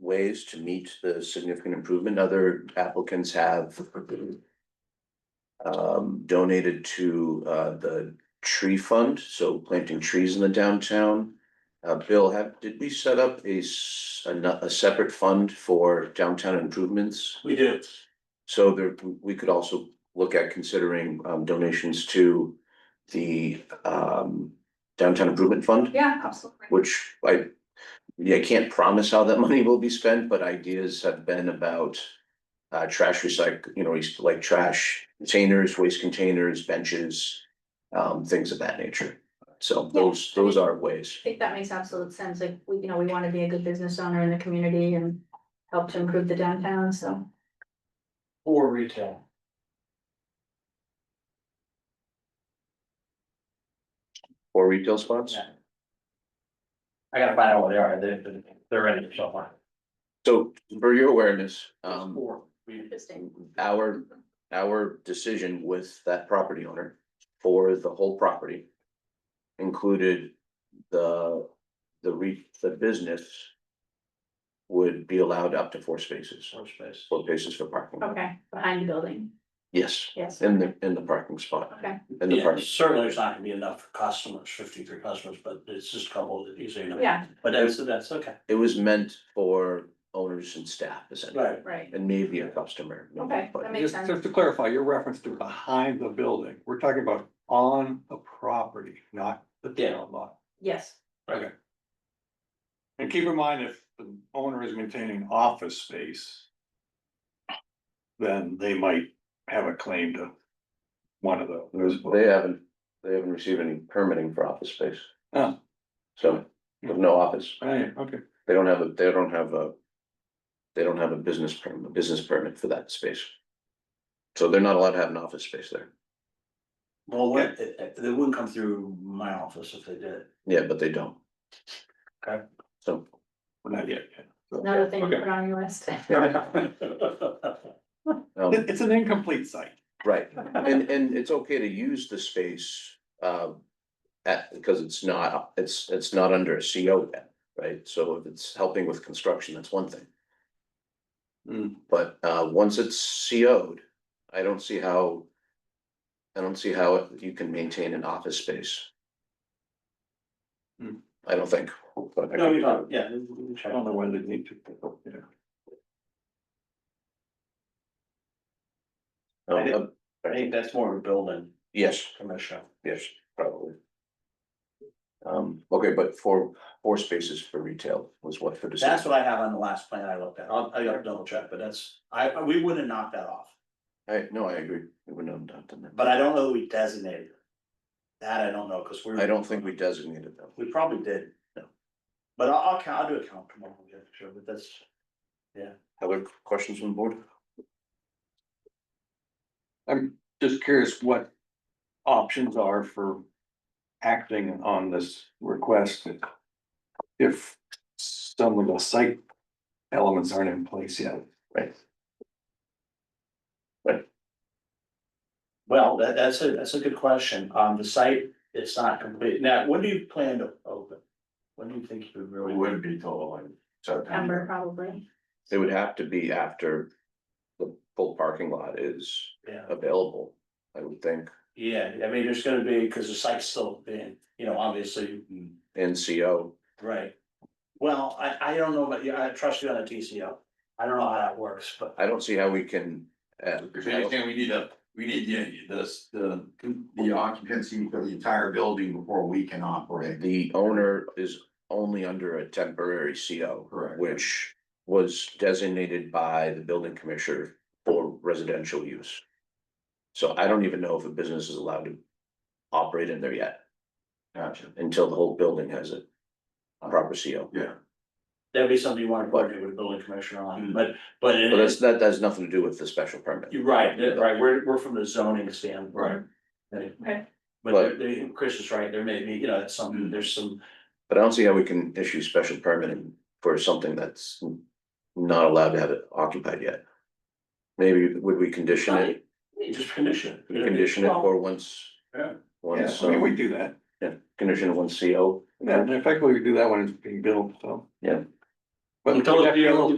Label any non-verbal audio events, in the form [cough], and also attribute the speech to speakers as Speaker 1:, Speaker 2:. Speaker 1: ways to meet the significant improvement other applicants have. Um, donated to uh the tree fund, so planting trees in the downtown. Uh, Bill, have, did we set up a s- a no- a separate fund for downtown improvements?
Speaker 2: We do.
Speaker 1: So there, we could also look at considering um donations to the um downtown improvement fund,
Speaker 3: Yeah, absolutely.
Speaker 1: which I. Yeah, I can't promise how that [laughs] money will be spent, but ideas have been about. Uh, trash recycle, you know, it's like trash containers, waste containers, benches, um, things of that nature. So those, those are ways.
Speaker 3: I think that makes absolute sense, like, we, you know, we want to be a good business owner in the community and help to improve the downtown, so.
Speaker 2: Or retail.
Speaker 1: Or retail spots?
Speaker 2: Yeah. I gotta find out what they are, they're, they're ready to show one.
Speaker 1: So for your awareness, um.
Speaker 2: Four. We-
Speaker 3: Interesting.
Speaker 1: our, our decision with that property owner for the whole property included the, the re, the business would be allowed up to four spaces,
Speaker 2: Four space.
Speaker 1: four spaces for parking.
Speaker 3: Okay, behind the building,
Speaker 1: Yes,
Speaker 3: yes.
Speaker 1: in the, in the parking spot,
Speaker 3: Okay,
Speaker 1: in the
Speaker 2: Yeah,
Speaker 1: parking.
Speaker 2: certainly there's not gonna be enough for customers, fifty-three customers, but it's just a couple that easily enough.
Speaker 3: yeah,
Speaker 2: But that's, that's okay,
Speaker 1: It was meant for owners and staff essentially,
Speaker 2: right,
Speaker 3: right,
Speaker 1: and maybe a customer. maybe,
Speaker 3: Okay,
Speaker 1: but-
Speaker 3: that makes
Speaker 4: Just,
Speaker 3: sense.
Speaker 4: just to clarify, your reference to behind the building, we're talking about on the property, not the
Speaker 2: Yeah.
Speaker 4: town lot.
Speaker 3: yes,
Speaker 4: And keep in mind, if the owner is maintaining office space. Then they might have a claim to one of those.
Speaker 1: They haven't, they haven't received any permitting for office space.
Speaker 4: Oh.
Speaker 1: So, there's no office.
Speaker 4: Right, okay,
Speaker 1: They don't have, a. they don't have a. They don't have a business permit, a business permit for that space. So they're not allowed to have an office space there.
Speaker 2: well, what, it- it- they wouldn't come through my office if they [laughs] did.
Speaker 1: Yeah, but they don't.
Speaker 2: Okay.
Speaker 1: So,
Speaker 4: Well, not yet.
Speaker 3: another thing to
Speaker 4: Okay.
Speaker 3: put on your list.
Speaker 1: um,
Speaker 4: It- it's an incomplete site.
Speaker 1: right, and, and it's okay to use the space, uh. At, because it's not, it's, it's not under a CO yet, right? So if it's helping with construction, that's one thing.
Speaker 4: Hmm.
Speaker 1: But, uh, once it's CO'd, I don't see how. I don't see how you can maintain an office space.
Speaker 4: Hmm.
Speaker 1: I don't think. but I
Speaker 2: No, [laughs]
Speaker 1: could
Speaker 2: you
Speaker 1: be
Speaker 2: don't,
Speaker 1: wrong.
Speaker 2: yeah.
Speaker 4: I don't know why they need to. yeah.
Speaker 2: I did-
Speaker 1: Um, uh,
Speaker 2: I think that's more of a building
Speaker 1: Yes,
Speaker 2: commission.
Speaker 1: yes, probably. Um, okay, but four, four spaces for retail was what for
Speaker 2: That's
Speaker 1: decision.
Speaker 2: what I have on the last plan I looked at, I'll, I gotta double check, but that's, I, I- we wouldn't have knocked that off,
Speaker 1: I, no, I agree. We wouldn't have done that.
Speaker 2: but I don't know that we designated. it. That I don't know, cause we're.
Speaker 1: I don't think we designated them.
Speaker 2: We probably did, no. But I'll, I'll count, I'll do a count tomorrow, yeah, for sure, but that's,
Speaker 1: Other questions on the board?
Speaker 4: Just curious what options are for acting on this request. If some of the site elements aren't in place yet.
Speaker 2: well, that, that's a, that's a good question, um, the site, it's not complete, now, when do you plan to open? When do you think you really? Would be total, like,
Speaker 3: September probably,
Speaker 1: It would have to be after the full parking lot is
Speaker 2: Yeah,
Speaker 1: available, I would think,
Speaker 2: yeah, I mean, there's gonna be, cause the site's still being, you know, obviously, mm,
Speaker 1: and CO.
Speaker 2: Right. Well, I, I don't know, but yeah, I trust you on a TCO. I don't know how that works, but
Speaker 1: I don't see how we can, uh,
Speaker 5: If anything, we need a, we need the, this, the, the occupancy for the entire building before we can operate.
Speaker 1: the owner is only under a temporary CO.
Speaker 5: Correct.
Speaker 1: Which was designated by the building commissioner for residential use. So I don't even know if a business is allowed to operate in there yet
Speaker 5: Gotcha.
Speaker 1: until the whole building has a proper CO.
Speaker 5: Yeah,
Speaker 2: that'd be something you wanna coordinate with the building commissioner on, but, but. it-
Speaker 1: Mm. But that's, that has nothing to do with the special permit.
Speaker 2: You're right, that- right, we're, we're from the zoning standpoint. Right.
Speaker 3: Okay.
Speaker 2: But there- there- Chris is right, there may be, you know, it's some, there's some,
Speaker 1: But I don't see how we can issue special permitting for something that's not allowed to have it occupied yet. Maybe would we condition it,
Speaker 2: you just condition. it.
Speaker 1: condition it
Speaker 2: Well,
Speaker 1: for once?
Speaker 2: Yeah.
Speaker 4: Yeah,
Speaker 1: Once,
Speaker 4: I mean, we
Speaker 1: um,
Speaker 4: do that.
Speaker 1: condition of one CO.
Speaker 4: Yeah, and effectively, we do that when it's being built, so.
Speaker 1: Yeah.
Speaker 4: But
Speaker 2: Until
Speaker 4: we
Speaker 2: the
Speaker 4: have to-
Speaker 2: deal-